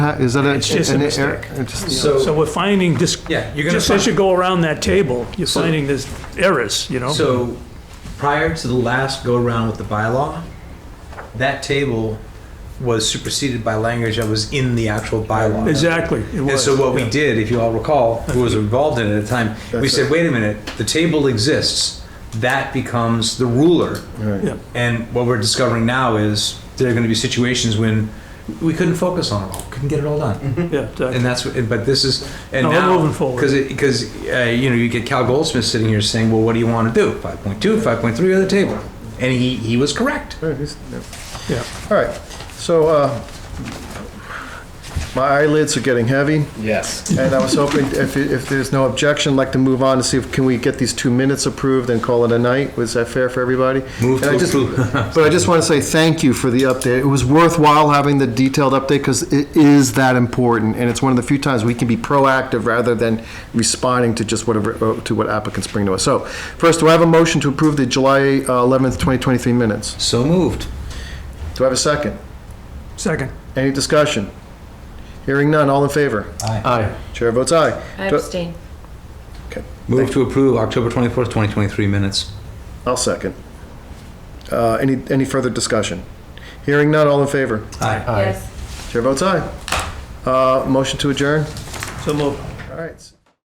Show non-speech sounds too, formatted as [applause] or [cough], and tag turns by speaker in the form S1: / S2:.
S1: that? Is that a?
S2: It's just a
S1: an
S2: mistake.
S1: error? It's-
S3: So-
S2: So we're finding this,
S3: Yeah, you're gonna
S2: just as you
S3: find-
S2: go around that table, you're
S3: So-
S2: finding this errors, you know?
S3: So, prior to the last go-around with the bylaw, that table was superseded by language that was in the actual bylaw.
S2: Exactly, it
S3: And
S2: was.
S3: so what we
S2: yeah.
S3: did, if you all recall, who was involved in it at the time, we
S1: That's
S3: said, wait a minute, the table exists. That becomes the ruler.
S2: Yeah.
S3: And what we're discovering now is there are going to be situations when we couldn't focus on it all, couldn't get it all done.
S2: Yeah, exactly.
S3: And that's, what. but this is, and
S2: No, we're
S3: now.
S2: moving forward.
S3: Because, because, uh, you know, you get Cal Goldsmith sitting here saying, well, what do you want to do? 5.2, 5.3 or the table? And he, he was correct.
S1: All right, he's- yeah.
S2: yeah.
S1: All right, so, uh, my eyelids are getting heavy.
S4: Yes.
S1: And I was hoping, if, if there's no objection, I'd like to move on to see if, can we get these two minutes approved and call it a night? Was that fair for everybody?
S3: Move
S1: And I
S3: to
S1: just-
S3: approve.
S1: [laughs] But I just want to say thank you for the update. It was worthwhile having the detailed update because it is that important. And it's one of the few times we can be proactive rather than responding to just whatever, uh, to what applicants bring to us. So first, do I have a motion to approve the July uh, 11th, 2023 minutes?
S3: So moved.
S1: Do I have a second?
S2: Second,
S1: Any discussion? Hearing none, all in favor?
S3: Aye.
S1: Chair votes aye.
S5: I
S1: Do-
S5: abstain.
S3: Move to approve October 24th, 2023 minutes.
S1: I'll second. Uh, Any, any further discussion? Hearing none, all in favor?
S3: Aye.
S5: Yes.
S1: Chair votes aye. Uh, Motion to adjourn?
S2: so move.
S1: All right.